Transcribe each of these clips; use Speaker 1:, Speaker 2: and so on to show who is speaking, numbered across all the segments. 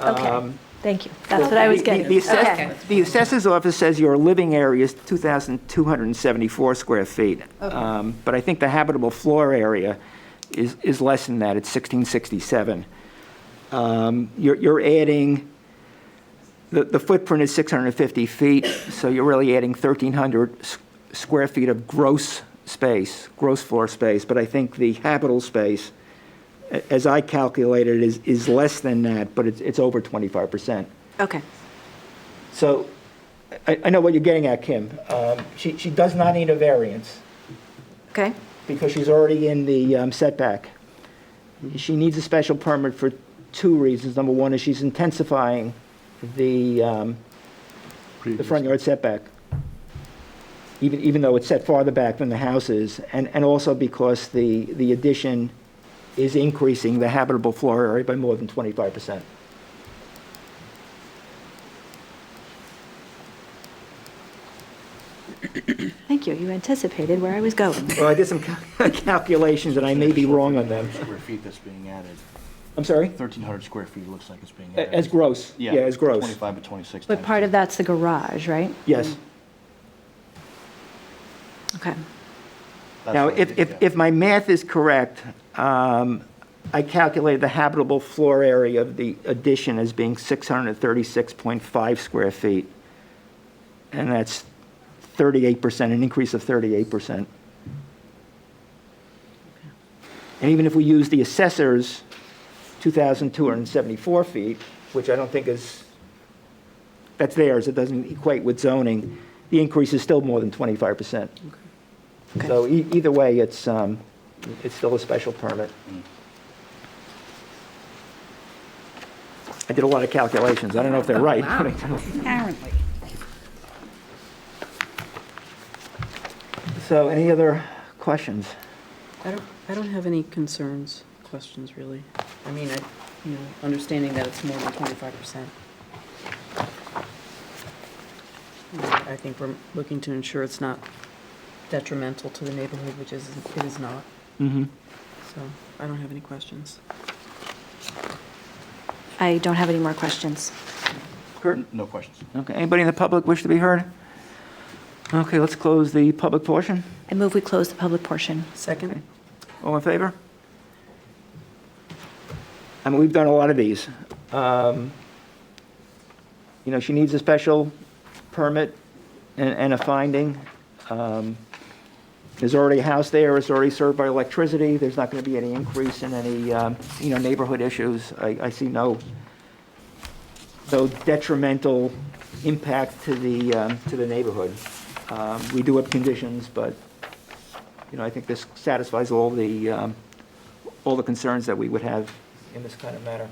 Speaker 1: Okay, thank you. That's what
Speaker 2: The-
Speaker 1: I was
Speaker 2: the-
Speaker 1: getting.
Speaker 2: The
Speaker 1: at.
Speaker 2: assess-
Speaker 3: Okay.
Speaker 2: the assessor's office says your living area is 2,274 square feet. Um, But I think the habitable floor area is, is less than that, it's 1667. Um, You're, you're adding, the, the footprint is 650 feet, so you're really adding 1,300 s- square feet of gross space, gross floor space, but I think the habitable space, a- as I calculated, is, is less than that, but it's, it's over 25%.
Speaker 3: Okay.
Speaker 2: So I, I know what you're getting at, Kim. Um, She, she does not need a variance
Speaker 3: Okay.
Speaker 2: because she's already in the um, setback. She needs a special permit for two reasons. Number one is she's intensifying the, um, the front yard setback, even, even though it's set farther back than the house is, and, and also because the, the addition is increasing the habitable floor area by more than 25%.
Speaker 1: Thank you, you anticipated where I was going.
Speaker 2: Well, I did some cal- calculations, and I may be wrong on them.
Speaker 4: Square feet that's being added,
Speaker 2: I'm sorry?
Speaker 4: 1,300 square feet looks like it's being added.
Speaker 2: A- As gross, yeah, as gross,
Speaker 4: 25 by 26.
Speaker 1: But
Speaker 4: times
Speaker 1: part
Speaker 4: two.
Speaker 1: of that's the garage, right?
Speaker 2: yes.
Speaker 1: Okay.
Speaker 4: That's
Speaker 2: Now,
Speaker 4: what I
Speaker 2: if,
Speaker 4: did,
Speaker 2: if,
Speaker 4: yeah.
Speaker 2: if my math is correct, um, I calculated the habitable floor area of the addition as being 636.5 square feet, and that's 38%, an increase of 38%. And even if we use the assessor's 2,274 feet, which I don't think is, that's theirs, it doesn't equate with zoning, the increase is still more than 25%. So e- either way, it's, um, it's still a special permit. I did a lot of calculations. I don't know if they're right.
Speaker 5: Apparently.
Speaker 2: So any other questions?
Speaker 5: I don't, I don't have any concerns, questions, really. I mean, I, you know, understanding that it's more than twenty-five percent. I think we're looking to ensure it's not detrimental to the neighborhood, which is, it is not,
Speaker 2: Mm-hmm.
Speaker 5: so I don't have any questions.
Speaker 1: I don't have any more questions.
Speaker 4: No questions.
Speaker 2: Okay, anybody in the public wish to be heard? Okay, let's close the public portion.
Speaker 1: I move we close the public portion.
Speaker 5: Second?
Speaker 2: All in favor? I mean, we've done a lot of these. Um, You know, she needs a special permit and, and a finding. Um, There's already a house there, it's already served by electricity, there's not going to be any increase in any, um, you know, neighborhood issues. I, I see no, no detrimental impact to the, um, to the neighborhood. Um, We do have conditions, but you know, I think this satisfies all the, um, all the concerns that we would have in this kind of matter.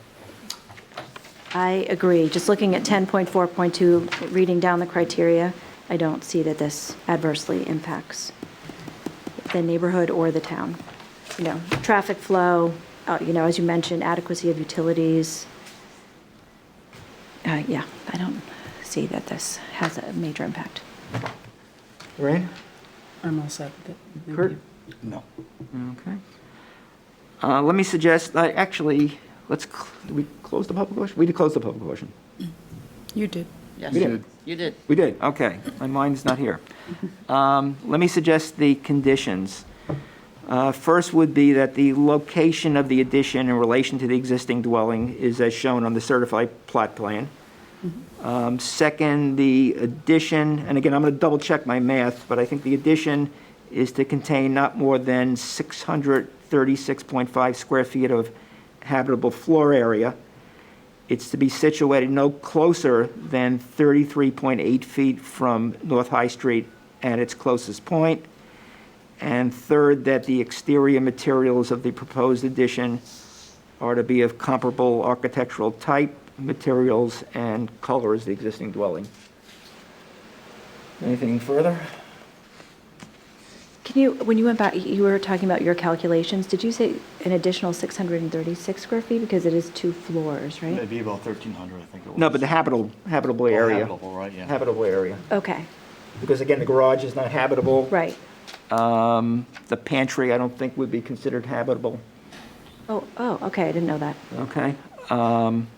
Speaker 1: I agree, just looking at 10.4.2, reading down the criteria, I don't see that this adversely impacts the neighborhood or the town. You know, traffic flow, uh, you know, as you mentioned, adequacy of utilities. Uh, Yeah, I don't see that this has a major impact.
Speaker 2: Lorraine?
Speaker 5: I'm all set with it. Thank
Speaker 2: Kurt?
Speaker 5: you.
Speaker 4: No.
Speaker 2: Okay. Uh, Let me suggest, I- actually, let's, cl- did we close the public portion? We did close the public portion.
Speaker 5: You did.
Speaker 2: We did.
Speaker 6: You did.
Speaker 2: We did, okay. My mind's not here. Um, Let me suggest the conditions. Uh, First would be that the location of the addition in relation to the existing dwelling is as shown on the certified plot plan. Um, Second, the addition, and again, I'm going to double check my math, but I think the addition is to contain not more than 636.5 square feet of habitable floor area. It's to be situated no closer than 33.8 feet from North High Street at its closest point. And third, that the exterior materials of the proposed addition are to be of comparable architectural type, materials, and color as the existing dwelling. Anything further?
Speaker 1: Can you, when you went back, you were talking about your calculations, did you say an additional 636 square feet? Because it is two floors, right?
Speaker 4: It'd be about 1,300, I think it was.
Speaker 2: No, but the habitable, habitable
Speaker 4: Oh,
Speaker 2: area.
Speaker 4: habitable, right, yeah.
Speaker 2: Habitable area.
Speaker 1: Okay,
Speaker 2: Because again, the garage is not habitable.
Speaker 1: right.
Speaker 2: Um, The pantry, I don't think would be considered habitable,
Speaker 1: Oh, oh, okay, I didn't know that.
Speaker 2: okay? Um,